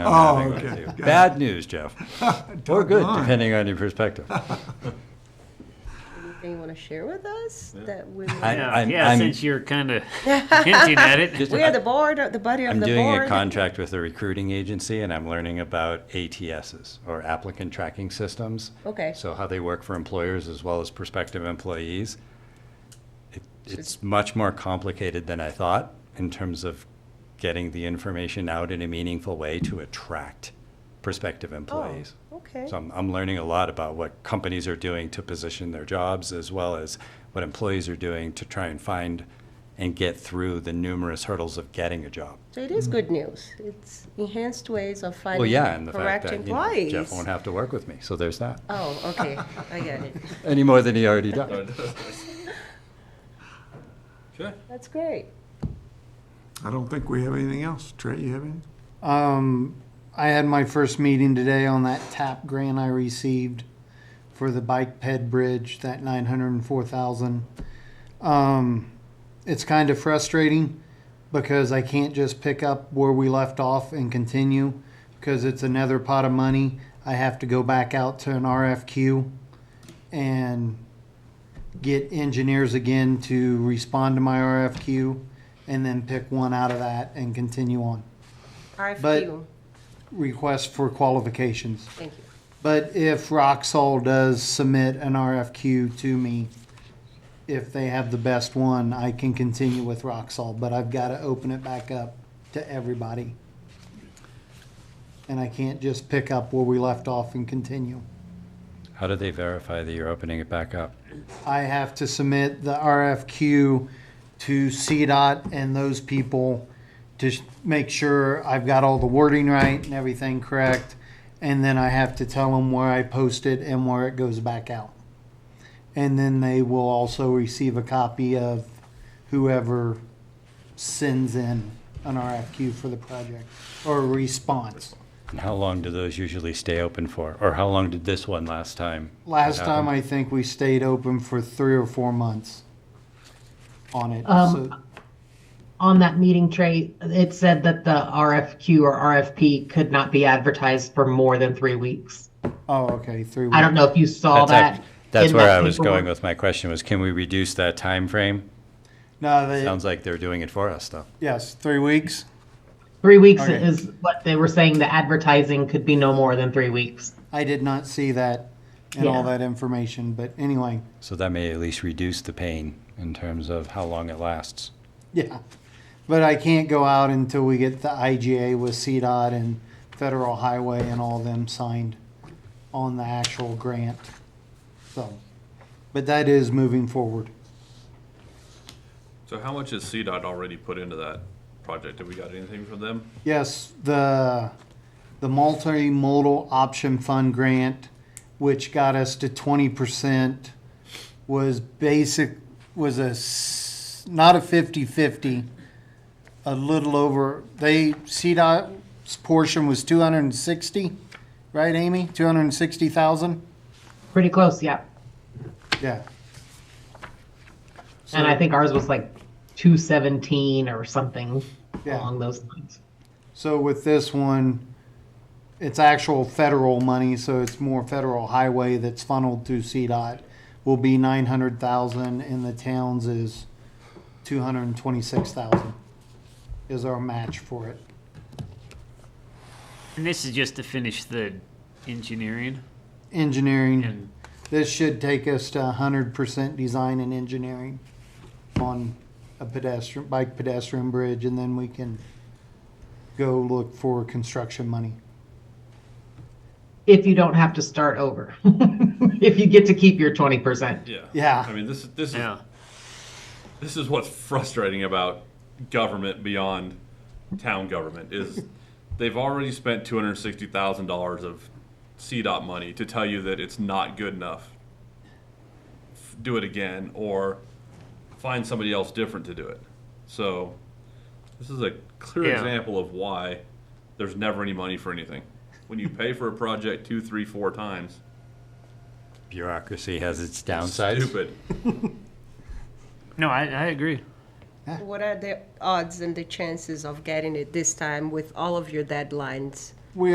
I'm Oh, having with okay. you. Got it. Bad news, Jeff. Or good, Doggone. depending on your perspective. Anything you want to share with us that we? I- Yeah, I'm- yeah I'm- since you're kind of hinting at it. Just- We are the board, uh, the buddy of I'm the board. doing a contract with a recruiting agency and I'm learning about ATSs or applicant tracking systems. Okay. So how they work for employers as well as prospective employees. It- It's much more complicated than I thought in terms of getting the information out in a meaningful way to attract prospective employees. Oh, okay. So I'm, I'm learning a lot about what companies are doing to position their jobs as well as what employees are doing to try and find and get through the numerous hurdles of getting a job. So it is good news. It's enhanced ways of mm-hmm. Well, finding yeah, and the fact correct that you know, employees. Jeff won't have to work with me, so there's that. Oh, okay, I get it. Any more than he already does. Sure. That's great. I don't think we have anything else. Trey, you have anything? Um, I had my first meeting today on that TAP grant I received for the bike ped bridge, that nine hundred and four thousand. Um, it's kind of frustrating because I can't just pick up where we left off and continue because it's another pot of money. I have to go back out to an RFQ and get engineers again to respond to my RFQ and then pick one out of that and continue on RFQ, request for qualifications. thank you. But if Roxol does submit an RFQ to me, if they have the best one, I can continue with Roxol, but I've got to open it back up to everybody. And I can't just pick up where we left off and continue. How do they verify that you're opening it back up? I have to submit the RFQ to CDOT and those people to sh- make sure I've got all the wording right and everything correct. And then I have to tell them where I post it and where it goes back out. And then they will also receive a copy of whoever sends in an RFQ for the project or a response. And how long do those usually stay open for? Or how long did this one last time? Last time, I think we stayed open for three or four months on it. Um, So- on that meeting tray, it said that the RFQ or RFP could not be advertised for more than three weeks. Oh, okay, three weeks. I don't know if you saw That's act- that. That's in where that I was going paperwork. with my question was, can we reduce that time frame? No, they, Sounds like they're doing it for us, though. yes, three weeks. Three weeks Okay. is what they were saying, the advertising could be no more than three weeks. I did not see that and all Yeah. that information, but anyway, So that may at least reduce the pain in terms of how long it lasts. yeah. But I can't go out until we get the IGA with CDOT and Federal Highway and all them signed on the actual grant. So, but that is moving forward. So how much has CDOT already put into that project? Have we got anything from them? Yes, the, the multimodal option fund grant, which got us to twenty percent, was basic, was a, s- not a 50-50, a little over, they, CDOT's portion was two hundred and sixty, right, Amy? Two hundred and sixty thousand? Pretty close, yeah. Yeah. And I think ours was like 217 or something Yeah. along those lines. So with this one, it's actual federal money, so it's more federal highway that's funneled through CDOT. Will be nine hundred thousand and the towns is two hundred and twenty-six thousand is our match for it. And this is just to finish the engineering Engineering, and this should take us to hundred percent design and engineering on a pedestrian, bike pedestrian bridge, and then we can go look for construction money. If you don't have to start over, if you get to keep your 20%. Yeah. Yeah. I mean, this is, this is, yeah. this is what's frustrating about government beyond town government is they've already spent two hundred sixty thousand dollars of CDOT money to tell you that it's not good enough. F- Do it again or find somebody else different to do it. So this is a clear Yeah. example of why there's never any money for anything. When you pay for a project two, three, four times, Bureaucracy has its downsides. stupid. No, I, I agree. What are the odds and the chances of getting it this time with all of your deadlines